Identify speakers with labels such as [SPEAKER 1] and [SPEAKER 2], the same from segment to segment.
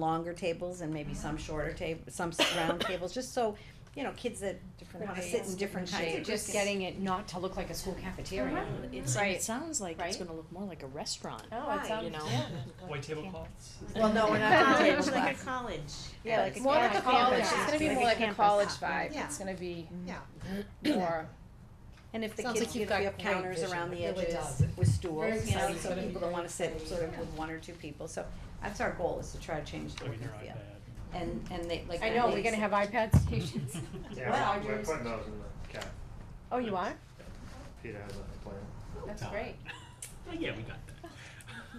[SPEAKER 1] longer tables and maybe some shorter table, some s- round tables, just so, you know, kids that
[SPEAKER 2] different
[SPEAKER 1] wanna
[SPEAKER 2] heights,
[SPEAKER 1] sit in different
[SPEAKER 2] different
[SPEAKER 1] kinds of.
[SPEAKER 2] shapes.
[SPEAKER 3] Just getting it not to look like a school cafeteria.
[SPEAKER 4] It's,
[SPEAKER 3] Right.
[SPEAKER 4] It sounds like it's
[SPEAKER 3] Right?
[SPEAKER 4] going to look more like a restaurant.
[SPEAKER 3] No,
[SPEAKER 2] Right.
[SPEAKER 3] Oh, it sounds,
[SPEAKER 4] You know.
[SPEAKER 3] yeah.
[SPEAKER 5] White tablecloths?
[SPEAKER 1] Well, no, we're not doing table
[SPEAKER 6] Like
[SPEAKER 1] cloth.
[SPEAKER 6] a college.
[SPEAKER 3] Yeah, like a
[SPEAKER 2] More like
[SPEAKER 3] Yeah,
[SPEAKER 2] a college,
[SPEAKER 3] campus.
[SPEAKER 2] it's gonna be
[SPEAKER 3] Like
[SPEAKER 2] more
[SPEAKER 3] a
[SPEAKER 2] like a
[SPEAKER 3] campus.
[SPEAKER 2] college vibe,
[SPEAKER 6] Yeah.
[SPEAKER 2] it's gonna be
[SPEAKER 6] Yeah.
[SPEAKER 2] more,
[SPEAKER 1] And if the
[SPEAKER 2] Sounds
[SPEAKER 1] kids
[SPEAKER 2] like you've
[SPEAKER 1] give, we
[SPEAKER 2] got
[SPEAKER 1] have
[SPEAKER 2] great
[SPEAKER 1] counters
[SPEAKER 2] vision.
[SPEAKER 1] around the
[SPEAKER 2] It really
[SPEAKER 1] edges
[SPEAKER 2] does.
[SPEAKER 1] with stools,
[SPEAKER 2] Very
[SPEAKER 1] you know,
[SPEAKER 2] exciting.
[SPEAKER 1] so
[SPEAKER 2] Gonna be
[SPEAKER 1] people that
[SPEAKER 2] very
[SPEAKER 1] wanna sit sort of
[SPEAKER 2] exciting.
[SPEAKER 1] with one or two people, so that's our goal, is to try to change the
[SPEAKER 5] Like
[SPEAKER 1] look
[SPEAKER 5] in
[SPEAKER 1] and
[SPEAKER 5] your
[SPEAKER 1] feel.
[SPEAKER 5] iPad.
[SPEAKER 1] And, and they, like.
[SPEAKER 3] I know,
[SPEAKER 1] they
[SPEAKER 3] we're gonna
[SPEAKER 1] said-
[SPEAKER 3] have iPad stations.
[SPEAKER 7] Yeah, we're putting those in the cap.
[SPEAKER 3] Oh, you are?
[SPEAKER 7] Peter has a plan.
[SPEAKER 3] That's great.
[SPEAKER 5] Well, yeah, we got that.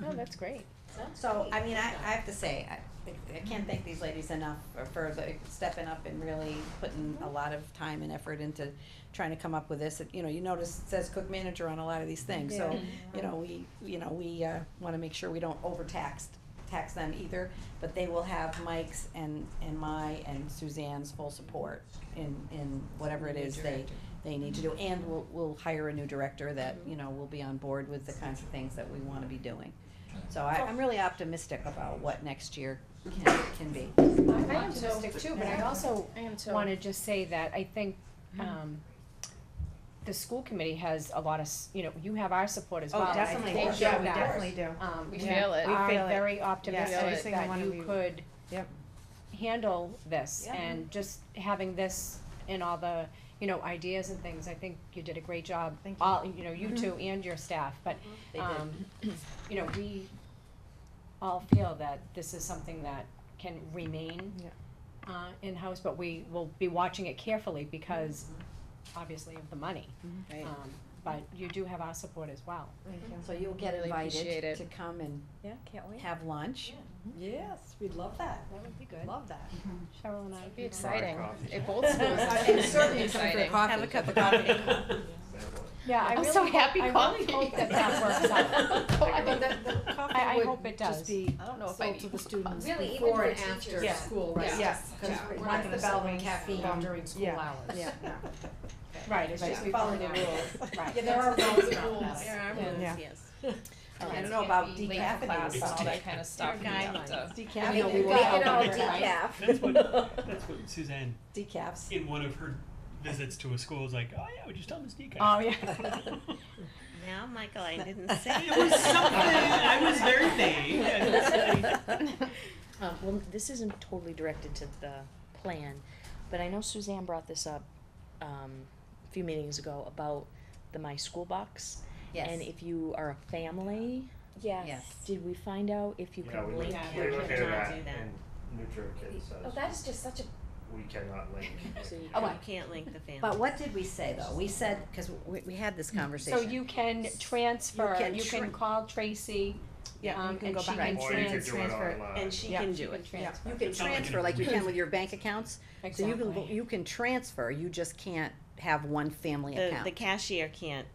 [SPEAKER 3] No, that's great.
[SPEAKER 1] So, I mean, I, I have to say, I, I can't thank these ladies enough for- for the stepping up and really putting a lot of time and effort into trying to come up with this. You know, you notice it says cook manager on a lot of these things, so, you know, we, you know, we, uh, wanna make sure we don't overtax, tax them either. But they will have Mike's and, and my and Suzanne's full support in, in whatever it is they, they need to do. And we'll, we'll hire a new director that, you know, will be on board with the kinds of things that we wanna be doing. So I, I'm really optimistic about what next year can, can be.
[SPEAKER 3] I'm optimistic too, but I also
[SPEAKER 2] I am too.
[SPEAKER 3] wanna just say that I think, um, the school committee has a lot of, s- you know, you have our support as
[SPEAKER 1] Oh,
[SPEAKER 3] well. and I
[SPEAKER 1] definitely.
[SPEAKER 3] think
[SPEAKER 1] Oh,
[SPEAKER 3] that
[SPEAKER 1] yeah,
[SPEAKER 3] that-
[SPEAKER 8] do.
[SPEAKER 3] Um,
[SPEAKER 2] We
[SPEAKER 3] we
[SPEAKER 2] feel it.
[SPEAKER 3] are
[SPEAKER 8] We feel it.
[SPEAKER 3] very
[SPEAKER 8] Every
[SPEAKER 3] optimistic
[SPEAKER 8] single
[SPEAKER 3] that
[SPEAKER 8] one of
[SPEAKER 3] you
[SPEAKER 8] you.
[SPEAKER 3] could
[SPEAKER 8] Yep.
[SPEAKER 3] handle this
[SPEAKER 1] Yeah.
[SPEAKER 3] and just having this and all the, you know, ideas and things, I think you did a great job.
[SPEAKER 8] Thank you. Mm-hmm.
[SPEAKER 3] All, you know, you two and your staff, but,
[SPEAKER 1] They did.
[SPEAKER 3] um, you know, we all feel that this is something that can remain
[SPEAKER 8] Yeah.
[SPEAKER 3] uh, in-house, but we will be watching it carefully because
[SPEAKER 8] Mm-hmm.
[SPEAKER 3] obviously of the money.
[SPEAKER 2] Right.
[SPEAKER 3] Um, but you do have our support as well.
[SPEAKER 1] So you'll get
[SPEAKER 2] Really
[SPEAKER 1] invited
[SPEAKER 2] appreciate it.
[SPEAKER 1] to come and
[SPEAKER 3] Yeah, can't wait.
[SPEAKER 1] have lunch.
[SPEAKER 8] Yes, we'd love that.
[SPEAKER 3] That would be good.
[SPEAKER 8] Love that.
[SPEAKER 3] Cheryl and I.
[SPEAKER 2] It'd be
[SPEAKER 3] can-
[SPEAKER 2] exciting,
[SPEAKER 7] coffee.
[SPEAKER 2] if both schools, it's certainly exciting.
[SPEAKER 1] Have a cup of coffee.
[SPEAKER 3] Yeah, I
[SPEAKER 2] I'm
[SPEAKER 3] really,
[SPEAKER 2] so
[SPEAKER 3] hope-
[SPEAKER 2] happy
[SPEAKER 3] I really
[SPEAKER 2] coffee.
[SPEAKER 3] hope that that works out.
[SPEAKER 2] I mean, the, the
[SPEAKER 3] I- I
[SPEAKER 2] coffee
[SPEAKER 3] hope it
[SPEAKER 2] would just
[SPEAKER 3] does.
[SPEAKER 2] be
[SPEAKER 8] I don't know if I
[SPEAKER 2] sold to
[SPEAKER 8] need
[SPEAKER 2] the students
[SPEAKER 3] Really, even
[SPEAKER 2] before
[SPEAKER 3] for
[SPEAKER 2] and
[SPEAKER 3] teachers.
[SPEAKER 2] after
[SPEAKER 8] Yeah.
[SPEAKER 2] school, right?
[SPEAKER 8] Yeah. Yes, Yeah.
[SPEAKER 2] we
[SPEAKER 8] we're not gonna sell them caffeine
[SPEAKER 2] during school
[SPEAKER 8] Yeah.
[SPEAKER 2] hours.
[SPEAKER 8] Yeah,
[SPEAKER 3] Right, it's just we follow the rules. Right.
[SPEAKER 2] there are rules around that.
[SPEAKER 8] Yeah.
[SPEAKER 1] Yes. I don't know about decaf class,
[SPEAKER 5] class,
[SPEAKER 1] all that.
[SPEAKER 5] kind of
[SPEAKER 1] stuff.
[SPEAKER 8] Decaf.
[SPEAKER 1] You know, we
[SPEAKER 8] We've
[SPEAKER 1] will
[SPEAKER 8] got
[SPEAKER 1] have
[SPEAKER 8] all
[SPEAKER 1] a
[SPEAKER 8] the
[SPEAKER 1] decaf.
[SPEAKER 5] That's what, that's what Suzanne,
[SPEAKER 1] Decafs.
[SPEAKER 5] in one of her visits to a school, was like, oh yeah, we just tell them it's decaf.
[SPEAKER 3] Oh, yeah.
[SPEAKER 6] Now, Michael, I didn't say.
[SPEAKER 5] It was something, I was very vague. I was like,
[SPEAKER 4] Um, well, this isn't totally directed to the plan, but I know Suzanne brought this up um, a few meetings ago about the My School Box. And if you are a family,
[SPEAKER 1] Yes.
[SPEAKER 4] did we find out if you
[SPEAKER 7] Yeah,
[SPEAKER 4] can
[SPEAKER 7] we look,
[SPEAKER 4] link
[SPEAKER 6] Yeah,
[SPEAKER 7] we
[SPEAKER 4] your
[SPEAKER 7] look at
[SPEAKER 6] cannot
[SPEAKER 7] that
[SPEAKER 6] do that.
[SPEAKER 7] and NutriKid
[SPEAKER 3] Oh,
[SPEAKER 7] says
[SPEAKER 3] that is just such a,
[SPEAKER 7] we cannot link.
[SPEAKER 4] So you-
[SPEAKER 6] Oh,
[SPEAKER 3] Oh,
[SPEAKER 6] you
[SPEAKER 3] I-
[SPEAKER 6] can't link the family.
[SPEAKER 1] But what did we say though? We said, cause we, we had this
[SPEAKER 3] so
[SPEAKER 1] conversation.
[SPEAKER 3] you can transfer,
[SPEAKER 1] can
[SPEAKER 3] you
[SPEAKER 1] tra-
[SPEAKER 3] can call Tracy,
[SPEAKER 8] Yeah,
[SPEAKER 3] um,
[SPEAKER 8] you can
[SPEAKER 3] and
[SPEAKER 8] go
[SPEAKER 3] she
[SPEAKER 8] back
[SPEAKER 3] can
[SPEAKER 8] and
[SPEAKER 7] Or you could
[SPEAKER 3] trans-
[SPEAKER 7] do it
[SPEAKER 8] transfer it.
[SPEAKER 7] online.
[SPEAKER 6] And she
[SPEAKER 8] Yeah.
[SPEAKER 6] can
[SPEAKER 3] she
[SPEAKER 6] do
[SPEAKER 3] can
[SPEAKER 6] it.
[SPEAKER 3] transfer.
[SPEAKER 1] You can
[SPEAKER 5] It's not like an
[SPEAKER 1] transfer like you can
[SPEAKER 5] agreement.
[SPEAKER 1] with your bank accounts. So you can, go-
[SPEAKER 3] Exactly.
[SPEAKER 1] you can transfer, you just can't have one family
[SPEAKER 6] The,
[SPEAKER 1] account.
[SPEAKER 6] the cashier can't,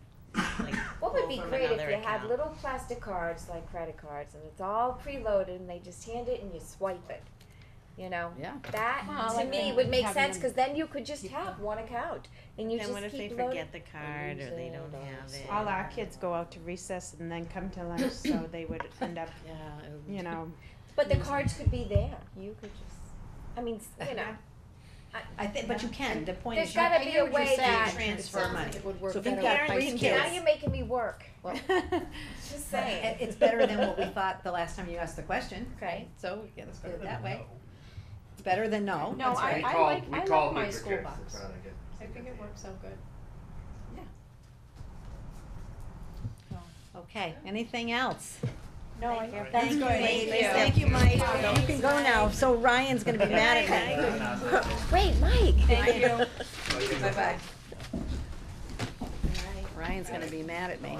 [SPEAKER 6] like,
[SPEAKER 9] What would
[SPEAKER 6] pull
[SPEAKER 9] be
[SPEAKER 6] from
[SPEAKER 9] great if
[SPEAKER 6] another
[SPEAKER 9] you had
[SPEAKER 6] account.
[SPEAKER 9] little plastic cards like credit cards and it's all preloaded and they just hand it and you swipe it, you know?
[SPEAKER 1] Yeah.
[SPEAKER 9] That
[SPEAKER 3] Well, I
[SPEAKER 9] to
[SPEAKER 3] like
[SPEAKER 9] me
[SPEAKER 3] that.
[SPEAKER 9] would make
[SPEAKER 3] Having
[SPEAKER 9] sense
[SPEAKER 3] them-
[SPEAKER 9] because then you could just have one account and you
[SPEAKER 6] Then what
[SPEAKER 9] just
[SPEAKER 6] if they
[SPEAKER 9] keep loading.
[SPEAKER 6] forget the card or they don't have it?
[SPEAKER 8] All our kids go out to recess and then come to lunch, so they would end up,
[SPEAKER 4] Yeah. it would-
[SPEAKER 8] you know,
[SPEAKER 9] But the cards could be there. You could just, I mean, s- you know,
[SPEAKER 1] I think, but you can, the point
[SPEAKER 9] There's
[SPEAKER 1] is you.
[SPEAKER 9] gotta
[SPEAKER 1] I
[SPEAKER 9] be
[SPEAKER 1] hear
[SPEAKER 9] a
[SPEAKER 1] what you're
[SPEAKER 9] way
[SPEAKER 1] saying,
[SPEAKER 9] that-
[SPEAKER 1] Transfer money.
[SPEAKER 8] it would work
[SPEAKER 1] So if you've
[SPEAKER 8] better
[SPEAKER 1] got
[SPEAKER 8] with
[SPEAKER 1] three
[SPEAKER 8] high
[SPEAKER 9] now
[SPEAKER 1] kids.
[SPEAKER 9] you're making me work. Just
[SPEAKER 1] It-
[SPEAKER 9] saying.
[SPEAKER 1] It's better than what we thought the last time you asked the question,
[SPEAKER 9] Okay.
[SPEAKER 1] so yeah, let's do
[SPEAKER 5] better
[SPEAKER 1] it
[SPEAKER 5] than
[SPEAKER 1] that way.
[SPEAKER 5] no.
[SPEAKER 1] It's better than no,
[SPEAKER 3] No,
[SPEAKER 1] that's
[SPEAKER 3] Oh, I-
[SPEAKER 1] right.
[SPEAKER 3] I
[SPEAKER 7] called-
[SPEAKER 3] like-
[SPEAKER 7] we
[SPEAKER 3] I like
[SPEAKER 7] called
[SPEAKER 3] my
[SPEAKER 7] NutriKids,
[SPEAKER 3] school
[SPEAKER 7] it's
[SPEAKER 3] box.
[SPEAKER 7] not a good-
[SPEAKER 3] I think it works out good.
[SPEAKER 1] Okay, anything else?
[SPEAKER 3] No, I,
[SPEAKER 7] Alright.
[SPEAKER 3] that's
[SPEAKER 1] Thank you,
[SPEAKER 3] good.
[SPEAKER 1] ladies.
[SPEAKER 3] Thank you.
[SPEAKER 1] Thank you, Mike. You can go now, so Ryan's gonna be mad at me.
[SPEAKER 9] Wait, Mike.
[SPEAKER 3] Thank you.
[SPEAKER 7] Oh, you can go
[SPEAKER 1] Bye-bye.
[SPEAKER 7] back.
[SPEAKER 1] Ryan's gonna be mad at me.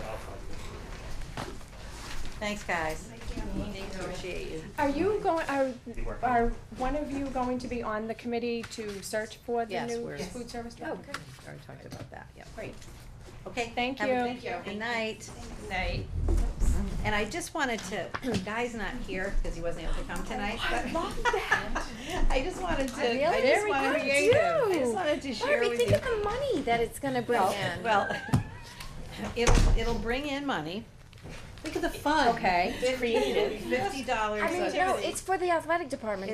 [SPEAKER 1] Thanks, guys. Appreciate you.
[SPEAKER 3] Are you going, are,
[SPEAKER 7] You work on it.
[SPEAKER 3] are one of you going to be on the committee to search for the
[SPEAKER 1] Yes,
[SPEAKER 3] new
[SPEAKER 1] we're-
[SPEAKER 3] food service
[SPEAKER 1] Oh,
[SPEAKER 3] director?
[SPEAKER 1] good, we already talked about that, yeah.
[SPEAKER 3] Great.
[SPEAKER 1] Okay.
[SPEAKER 3] Thank
[SPEAKER 1] have a
[SPEAKER 3] you.
[SPEAKER 1] good-
[SPEAKER 3] Thank you.
[SPEAKER 1] Good night.
[SPEAKER 2] Night.
[SPEAKER 1] And I just wanted to, Guy's not here because he wasn't able to come tonight, but. I love that. I just wanted to, I just
[SPEAKER 9] Very
[SPEAKER 1] wanted to,
[SPEAKER 9] creative.
[SPEAKER 1] I just wanted to share
[SPEAKER 9] Barbie,
[SPEAKER 1] with you.
[SPEAKER 9] think of the money that it's gonna bring in.
[SPEAKER 1] Well, it'll, it'll bring in money,
[SPEAKER 10] Look at the fun.
[SPEAKER 11] Okay.
[SPEAKER 10] Fifty dollars.
[SPEAKER 1] I mean, no, it's for the athletic department.